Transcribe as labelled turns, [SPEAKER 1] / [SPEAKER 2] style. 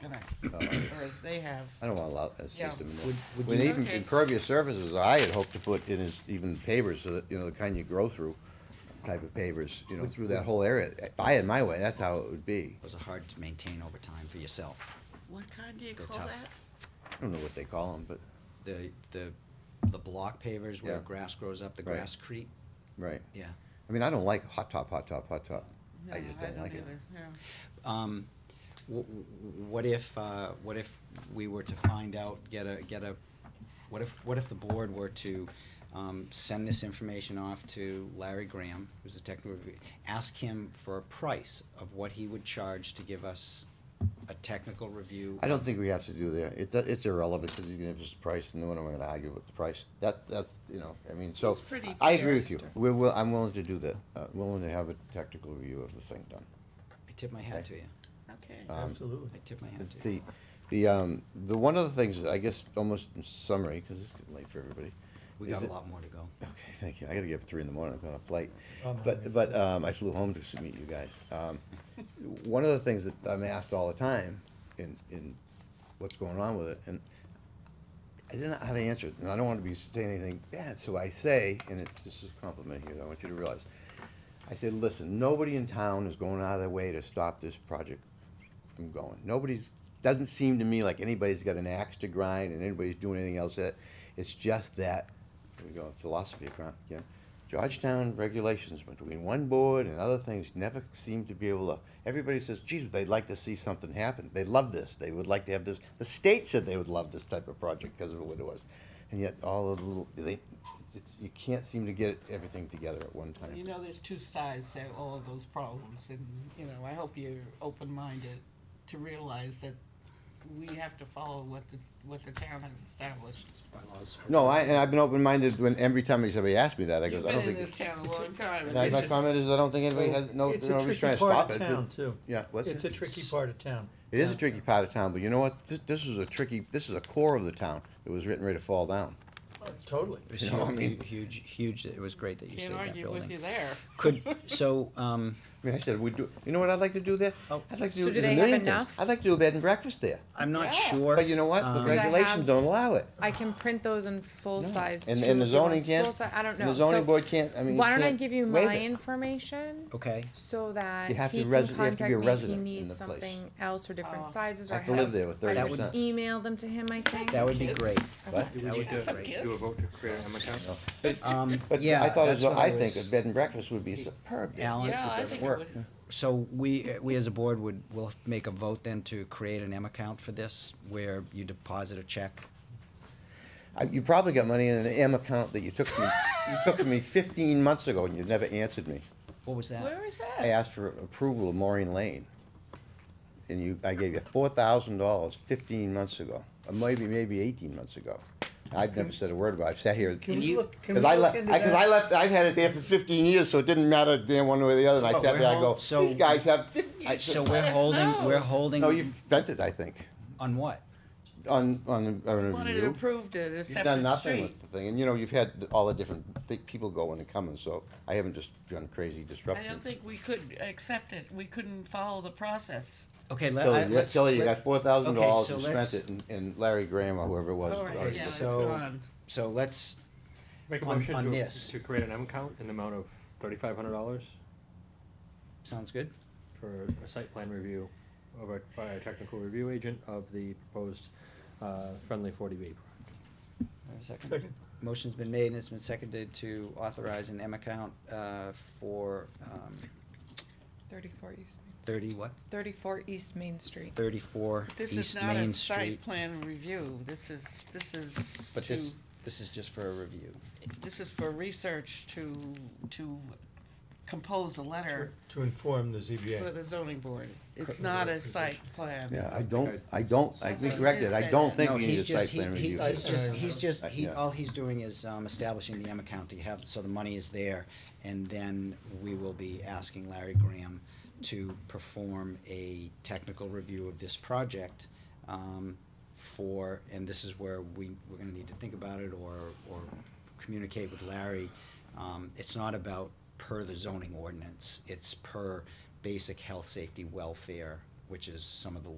[SPEAKER 1] Can I?
[SPEAKER 2] Uh,
[SPEAKER 3] or they have.
[SPEAKER 2] I don't wanna allow that
[SPEAKER 3] Yeah.
[SPEAKER 2] system. in there.
[SPEAKER 4] Would- would
[SPEAKER 2] When
[SPEAKER 3] you-
[SPEAKER 2] even
[SPEAKER 3] Okay.
[SPEAKER 2] impervious surfaces, I had hoped to put in is even pavers, so that, you know, the kind you grow through type of pavers, you know,
[SPEAKER 4] Would-
[SPEAKER 2] through
[SPEAKER 4] would-
[SPEAKER 2] that whole area. If I had my way, that's how it would be.
[SPEAKER 4] Those are hard to maintain over time for yourself.
[SPEAKER 3] What kind do you
[SPEAKER 4] They're
[SPEAKER 3] call
[SPEAKER 4] tough.
[SPEAKER 3] that?
[SPEAKER 2] I don't know what they call them, but,
[SPEAKER 4] The, the, the block pavers where
[SPEAKER 2] Yeah.
[SPEAKER 4] grass grows up, the
[SPEAKER 2] Right.
[SPEAKER 4] grass creep,
[SPEAKER 2] right.
[SPEAKER 4] yeah.
[SPEAKER 2] I mean, I don't like hot top, hot top, hot top.
[SPEAKER 3] No,
[SPEAKER 2] I just don't like it.
[SPEAKER 3] either, yeah.
[SPEAKER 4] Um, wh- wh- what if, uh, what if we were to find out, get a, get a, what if, what if the board were to, um, send this information off to Larry Graham, who's the technical review, ask him for a price of what he would charge to give us a technical review?
[SPEAKER 2] I don't think we have to do that. It, do- it's irrelevant, because even if it's priced, no one am gonna argue with the price. That, that's, you know, I mean, so.
[SPEAKER 3] It's pretty
[SPEAKER 2] I agree with you.
[SPEAKER 3] fair.
[SPEAKER 2] We're, will- I'm willing to do that, uh, willing to have a technical review of the thing done.
[SPEAKER 4] I tip my hat to you,
[SPEAKER 3] Okay.
[SPEAKER 2] Um,
[SPEAKER 5] Absolutely.
[SPEAKER 4] I tip my hat to you.
[SPEAKER 2] The, the, um, the, one of the things, that I guess, almost in summary, because it's getting late for everybody.
[SPEAKER 4] We
[SPEAKER 2] is
[SPEAKER 4] got a
[SPEAKER 2] it-
[SPEAKER 4] lot more to go.
[SPEAKER 2] Okay, thank you. I gotta get up at three in the morning, I'm going up late.
[SPEAKER 5] Oh, no,
[SPEAKER 2] But,
[SPEAKER 5] you're
[SPEAKER 2] but, um, I flew home to s- meet you guys. Um, one of the things that I'm asked all the time in, in what's going on with it, and I didn't know how to answer it, and I don't wanna be saying anything bad, so I say, and it, this is a compliment here, that I want you to realize. I said, listen, nobody in town is going out of their way to stop this project from going. Nobody's, doesn't seem to me like anybody's got an axe to grind and anybody's doing anything else that, it's just that, here we go, philosophy again. again. Georgetown regulations between one board and other things never seem to be able to, everybody says, geez, they'd like to see something happen. They love this, they would like to have this, the state said they would love this type of project because of what it was. And yet all the little, they, it's, you can't seem to get everything together at one time.
[SPEAKER 3] You know, there's two sides to all of those problems, and, you know, I hope you're open-minded to realize that we have to follow what the, what the town has established.
[SPEAKER 2] No, I, and I've been open-minded when, every time somebody asks me that, I
[SPEAKER 3] You've
[SPEAKER 2] goes, I
[SPEAKER 3] been
[SPEAKER 2] don't
[SPEAKER 3] in
[SPEAKER 2] think.
[SPEAKER 3] this town a long time,
[SPEAKER 2] My,
[SPEAKER 3] and
[SPEAKER 2] my
[SPEAKER 3] you should,
[SPEAKER 2] comment is, I don't think anybody has, no,
[SPEAKER 5] It's a
[SPEAKER 2] nobody's trying
[SPEAKER 5] tricky
[SPEAKER 2] to stop
[SPEAKER 5] part
[SPEAKER 2] it.
[SPEAKER 5] of town, too.
[SPEAKER 2] Yeah, what's
[SPEAKER 5] It's a
[SPEAKER 2] it?
[SPEAKER 5] tricky part of town.
[SPEAKER 2] It is a tricky part of town, but you know what? This, this is a tricky, this is a core of the town that was written ready to fall down.
[SPEAKER 5] Totally.
[SPEAKER 4] It was
[SPEAKER 2] You know what I
[SPEAKER 4] hu-
[SPEAKER 2] mean?
[SPEAKER 4] huge, huge, it was great that you
[SPEAKER 3] can't
[SPEAKER 4] saved that
[SPEAKER 3] argue with you
[SPEAKER 4] building.
[SPEAKER 3] there.
[SPEAKER 4] Could, so, um,
[SPEAKER 2] I mean, I said, we do, you know what I'd like to do there?
[SPEAKER 4] Oh.
[SPEAKER 2] I'd like to do.
[SPEAKER 6] So do
[SPEAKER 2] there's a
[SPEAKER 6] they have
[SPEAKER 2] million things.
[SPEAKER 6] enough?
[SPEAKER 2] I'd like to do a bed and breakfast there,
[SPEAKER 4] I'm not
[SPEAKER 3] Yeah.
[SPEAKER 4] sure.
[SPEAKER 2] but you know what? The
[SPEAKER 4] um,
[SPEAKER 6] Because I
[SPEAKER 2] regulations
[SPEAKER 6] have-
[SPEAKER 2] don't allow it.
[SPEAKER 6] I can print those in full size.
[SPEAKER 2] And,
[SPEAKER 6] too,
[SPEAKER 2] and the
[SPEAKER 6] if you want.
[SPEAKER 2] zoning can't.
[SPEAKER 6] Full si- I don't know.
[SPEAKER 2] and The zoning
[SPEAKER 6] So
[SPEAKER 2] board can't, I mean. you
[SPEAKER 6] Why don't I
[SPEAKER 2] can't
[SPEAKER 6] give you
[SPEAKER 2] waive it.
[SPEAKER 6] my information
[SPEAKER 4] Okay,
[SPEAKER 6] so that
[SPEAKER 2] You have to
[SPEAKER 6] he can
[SPEAKER 2] resi- you have to
[SPEAKER 6] contact
[SPEAKER 2] be a
[SPEAKER 6] me if he
[SPEAKER 2] resident in the
[SPEAKER 6] needs
[SPEAKER 2] place.
[SPEAKER 6] something else or different
[SPEAKER 3] Oh.
[SPEAKER 6] sizes or
[SPEAKER 2] Have to live there with
[SPEAKER 6] I
[SPEAKER 2] 30%.
[SPEAKER 6] would email them to him. I think
[SPEAKER 4] that would be
[SPEAKER 3] Kids.
[SPEAKER 4] great.
[SPEAKER 2] What?
[SPEAKER 7] Do we
[SPEAKER 4] That
[SPEAKER 7] need
[SPEAKER 4] would be
[SPEAKER 7] to
[SPEAKER 4] great.
[SPEAKER 7] do a vote to create an account?
[SPEAKER 4] Um,
[SPEAKER 2] But
[SPEAKER 4] yeah,
[SPEAKER 2] I thought, as
[SPEAKER 4] that's what
[SPEAKER 2] I think a
[SPEAKER 4] was-
[SPEAKER 2] bed and breakfast would be superb. there.
[SPEAKER 4] Alan,
[SPEAKER 3] Yeah, I
[SPEAKER 2] doesn't
[SPEAKER 3] think it
[SPEAKER 2] work.
[SPEAKER 3] would,
[SPEAKER 4] So we, we as a board would, will make a vote then to create an M account for this, where you deposit a check.
[SPEAKER 2] I- You probably got money in an M account that you took from me, you took from me fifteen months ago and you never answered me.
[SPEAKER 4] What was that?
[SPEAKER 3] where is that?
[SPEAKER 2] I asked for approval of Maureen Lane. And you, I gave you four thousand dollars fifteen months ago, or maybe, maybe eighteen months ago. I've never said a word about it. I've sat here.
[SPEAKER 5] Can we look, can we
[SPEAKER 2] Cause I
[SPEAKER 5] look
[SPEAKER 2] left,
[SPEAKER 5] into
[SPEAKER 2] I, cause I
[SPEAKER 5] that?
[SPEAKER 2] left, I've had it there for fifteen years, so it didn't matter damn one way or the other. And I
[SPEAKER 5] Oh,
[SPEAKER 4] So
[SPEAKER 2] sat
[SPEAKER 4] we're
[SPEAKER 2] there, I go,
[SPEAKER 4] hol- so-
[SPEAKER 2] these guys have fifty. I
[SPEAKER 4] So
[SPEAKER 2] said,
[SPEAKER 4] we're
[SPEAKER 3] us
[SPEAKER 4] holding,
[SPEAKER 3] know.
[SPEAKER 4] we're holding,
[SPEAKER 2] No, you've spent it, I think,
[SPEAKER 4] on what?
[SPEAKER 2] on, on, the- on a
[SPEAKER 3] Wanted it
[SPEAKER 2] review.
[SPEAKER 3] approved at a
[SPEAKER 2] You've done
[SPEAKER 3] separate
[SPEAKER 2] nothing
[SPEAKER 3] street.
[SPEAKER 2] with the thing, and you know, you've had th- all the different thi- people going and coming, so I haven't just gone crazy
[SPEAKER 3] I
[SPEAKER 2] disrupting.
[SPEAKER 3] don't think we could accept it, we couldn't follow the process.
[SPEAKER 4] Okay, let, I-
[SPEAKER 2] Kelly, yeah,
[SPEAKER 4] let's.
[SPEAKER 2] Kelly, you
[SPEAKER 4] let-
[SPEAKER 2] got four thousand dollars
[SPEAKER 4] so
[SPEAKER 2] and spent
[SPEAKER 4] let's-
[SPEAKER 2] it, and- and Larry Graham or whoever it was.
[SPEAKER 3] All right,
[SPEAKER 2] already
[SPEAKER 3] yeah,
[SPEAKER 2] did.
[SPEAKER 3] it's
[SPEAKER 4] So-
[SPEAKER 3] gone.
[SPEAKER 4] So let's,
[SPEAKER 7] Make a
[SPEAKER 4] On-
[SPEAKER 7] motion
[SPEAKER 4] on
[SPEAKER 7] to,
[SPEAKER 4] this.
[SPEAKER 7] to create an M account in the amount of thirty-five hundred dollars
[SPEAKER 4] sounds good?
[SPEAKER 7] for a site plan review of a, by a technical review agent of the proposed, uh, friendly forty B.
[SPEAKER 4] Have a second?
[SPEAKER 5] Second.
[SPEAKER 4] Motion's been made and it's been seconded to authorize an M account, uh, for, um,
[SPEAKER 6] thirty-four East Main.
[SPEAKER 4] thirty what?
[SPEAKER 6] Thirty-four East Main Street.
[SPEAKER 4] Thirty-four
[SPEAKER 3] This is
[SPEAKER 4] East
[SPEAKER 3] not
[SPEAKER 4] Main
[SPEAKER 3] a
[SPEAKER 4] Street.
[SPEAKER 3] site plan review, this is, this is
[SPEAKER 4] But
[SPEAKER 3] to,
[SPEAKER 4] this, this is just for a review.
[SPEAKER 3] this is for research to, to compose a letter
[SPEAKER 5] To inform the
[SPEAKER 3] for
[SPEAKER 5] ZBA.
[SPEAKER 3] the zoning board. It's
[SPEAKER 5] Correct.
[SPEAKER 3] not a site plan.
[SPEAKER 2] Yeah, I
[SPEAKER 7] I-
[SPEAKER 2] don't, I don't, I
[SPEAKER 3] Something
[SPEAKER 2] think corrected, I
[SPEAKER 3] said
[SPEAKER 2] don't
[SPEAKER 3] that.
[SPEAKER 2] think
[SPEAKER 4] No,
[SPEAKER 2] you
[SPEAKER 4] he's
[SPEAKER 2] need a
[SPEAKER 4] just-
[SPEAKER 2] site plan
[SPEAKER 4] he- he-
[SPEAKER 2] review.
[SPEAKER 4] uh, He's just, he's just,
[SPEAKER 2] Uh,
[SPEAKER 4] he,
[SPEAKER 2] yeah.
[SPEAKER 4] all he's doing is, um, establishing the M account, he have, so the money is there, and then we will be asking Larry Graham to perform a technical review of this project, um, for, and this is where we, we're gonna need to think about it or, or communicate with Larry. Um, it's not about per the zoning ordinance, it's per basic health, safety, welfare, which is some of the